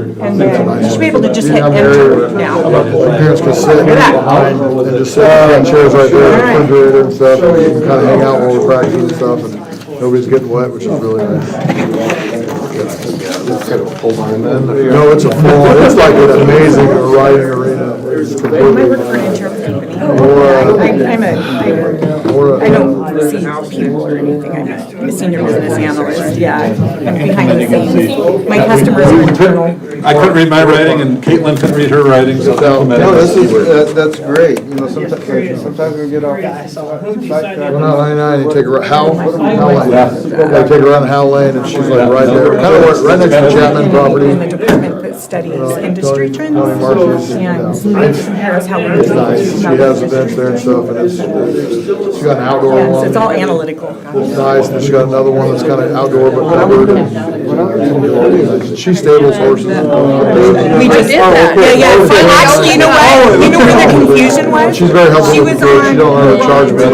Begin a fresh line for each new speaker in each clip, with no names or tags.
And then, you should be able to just hit enter now.
My parents could sit in behind and just sit in chairs right there, refrigerator and stuff, and you can kind of hang out while we're practicing and stuff, and nobody's getting wet, which is really nice. No, it's a full, it's like an amazing riding arena. uh,
I work for an insurance company. uh, I'm I'm a,
Or a-
I don't see people or anything, I'm a senior business analyst, yeah, I'm behind the scenes. My customers are internal.
I couldn't read my writing, and Caitlin couldn't read her writing, so they
No,
implemented
no, this is,
this.
that- that's great, you know, sometimes, sometimes we get off. Went out I-9 and take a, ri- Hal, Hal Lane. I take a run Hal Lane, and she's like right there, kind of right next to Chapman
In the
property.
department that studies industry trends and makes compares how we. do
Nice, she has events there and stuff, and it's, she's got an outdoor
Yes,
one.
it's all analytical.
It's Nice, and she's got another one that's kind of outdoor but covered. She stables horses. Oh,
We just did that. Yeah, yeah. So actually, you know what? You know where the confusion was?
She's very helpful
She
with the
was
kids. She
on
don't know how to charge
Tab.
them.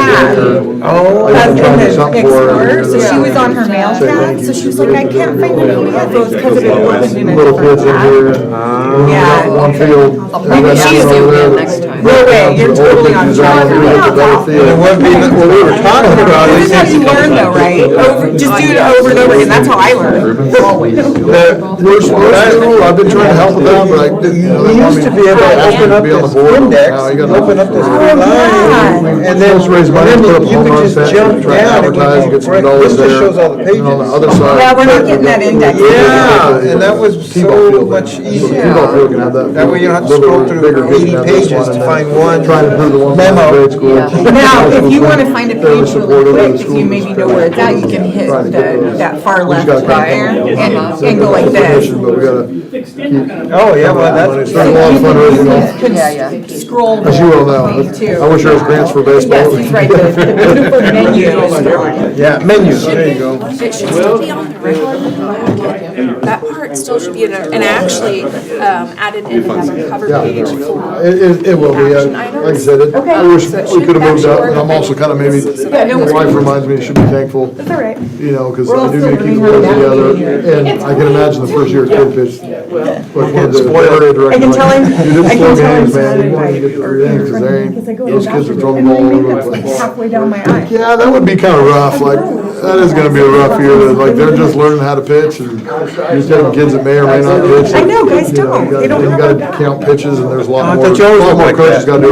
Oh. I
Up
used
in
to try to do something for her.
the
and
Explorer, so she was on her mail
Say
tab,
thank
so
you.
she was like, I can't find any of those because it wasn't in a
Little kids in
different tab.
here.
Yeah.
One field. and
Maybe
that's
she's
over
doing
there.
that next time.
No way, you're totally on track.
Design, we have the better field.
It wouldn't be-
Well, we were talking about
This
it.
is how you learn though, right? Over, just do it over and over again, that's how I learn, always.
That, we're supposed to, I've been trying to help with that, but I didn't. you know,
We
they want
used to
me
be able to
ask me
open
to
up
be on the
this
board.
index,
Now you gotta-
open up this
Oh,
line,
God.
and
Let's
then,
raise money,
then
put up a
you
home
could
run
just
set,
jump
try to
down and
advertise,
go
get some
right-
dollars
this just
there.
shows all the
And then on the
pages.
other side.
Yeah, we're not getting that index.
Yeah, and that was so much easier.
That
That way you don't have to scroll through 80 pages to find one
Trying to prove the one from
memo.
grade school.
Now, if you want to find a
They were
page really
supportive of the
quick, if
school
you maybe know
district.
where it's at, you can hit
Trying to get
the,
those.
that far
We just
left
gotta
right there
contact
and,
them.
and go like
But
this.
we gotta,
Oh, yeah, well,
it's
that's,
not a lot of fundraising,
Could
Yeah, yeah.
Scroll.
as you all know.
Me too.
I wish there was grants for baseball.
Yes, he's right, the the beautiful menu is on.
yeah, menus, there you go.
It should still be on the regular book. That part still should be in there, and actually um, added in as a cover
Yeah.
page for.
It, it, it will be,
Action
I- like I
items.
said, it- I
Okay.
wish
So it
we
should
could have moved
match
up,
your-
and I'm also kind of maybe,
Yeah, no,
my wife reminds me, I should be thankful,
All right.
you know, because
We're all
I do
still
need to keep the
learning
boys
how to navigate
together, and I can imagine the first year kid pitch, like one of the
Spoiled.
area director.
I can tell him-
Dude,
I
this
can
slow
tell
games,
him
man, you
to
want to get through it, because they
Because I
ain't,
go to
those
the
kids are
bathroom,
throwing the ball
And my
all
makeup's
over the
like
place.
halfway down my eye.
Yeah, that would be kind of rough, like, that is gonna be a rough year, like, they're just learning how to pitch, and you're telling kids that may or may not pitch.
I know, guys
You know,
don't.
you gotta-
They don't know
You
about
gotta
that.
count pitches, and there's a
I
lot more,
thought you always
a lot
looked
more
like
coaches
that.
gotta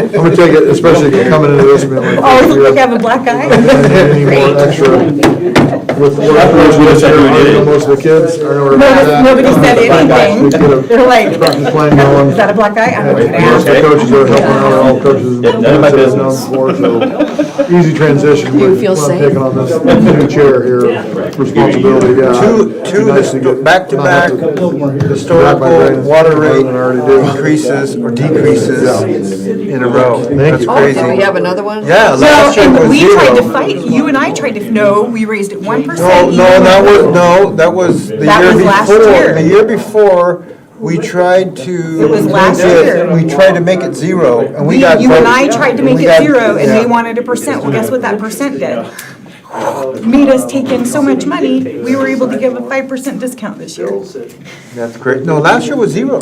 do. it. So, I'm gonna take it, especially coming into this, being like.
Oh, I
"Fuck, we
look like I
have-
have a black
we
eye.
have Any more extra with, with, most of the kids, I know. we're-
Notice Nobody said
We get
anything.
a
They're like,
practice
is
plan going.
that a black eye? I'm like,
Most of
"Nah."
the coaches are helping out, all coaches.
none of my business.
Before, so Easy transition, but
feel
I'm
safe?
taking on this new chair here, responsibility, yeah.
Two,
It'd be nice to
two
get-
back-to-back
not have to-
historical water rate
I already do.
increases or decreases in a row. That's
you.
Oh,
crazy.
do we have another one?
Yeah,
No,
last year
and
was
we
zero.
tried to fight, you and I tried to, no, we raised it one
No,
percent.
no, that was, no, that was the year before.
That was last year.
The year before, we tried to.
It was last
make it-
year.
We tried to make it zero, and we
We,
got.
you and
voted-
I tried to make
we
it
got-
zero, and they
yeah.
wanted a percent, well, guess what that percent did? Made us take in so much money, we were able to give a five percent discount this year.
That's correct. No, last year was zero.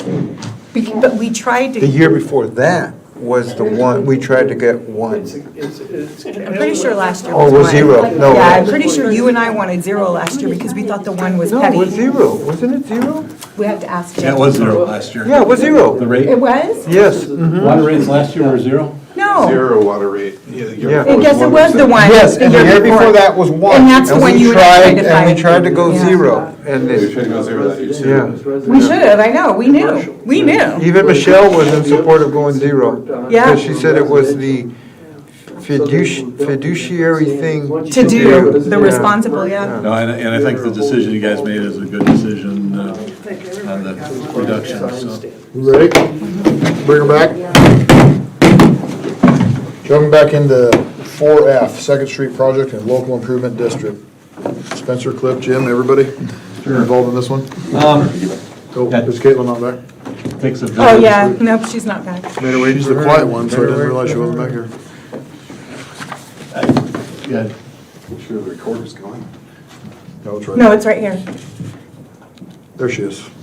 Bec- But we tried
The
to,
year before that was the one, we tried to get one.
I'm pretty sure last year
Or
was one.
was Oh, zero? No.
Yeah, I'm pretty sure you and I wanted zero last year because we thought the one was
No, it was
petty.
zero. Wasn't it zero?
We have to ask
That
him.
was zero last year.
Yeah, it was
The
zero.
rate,
It was?
Yes. mhm.
water rates last year were zero?
No.
Zero water rate. Yeah, the year
Yeah.
before
I guess it was the one.
Yes, and the year before that was one.
And that's the one
we
you and I tried to
And
fight.
we tried to go
Yeah.
zero. And
We
it-
should go zero that year. too.
yeah.
We should have, I know, we knew, we knew.
Even Michelle was in support of going zero.
Yeah.
Because she said it was the fiduci- fiduciary thing.
To do
Yeah.
the responsible, yeah.
No, and, I- and I think the decision you guys made is a good decision uh, on the reduction, so.
You Ready? Bring her back. Jumping back into four F, Second Street Project and Local Improvement District. Spencer, Cliff, Jim, everybody involved in this one? Oh, is Caitlin not back?
Takes a
Oh,
village.
yeah, nope, she's not back.
She's the quiet one, so I didn't realize she wasn't back here.
Yeah.
Make sure the recorder's going.
No, it's right.
No, it's right here.
There she is.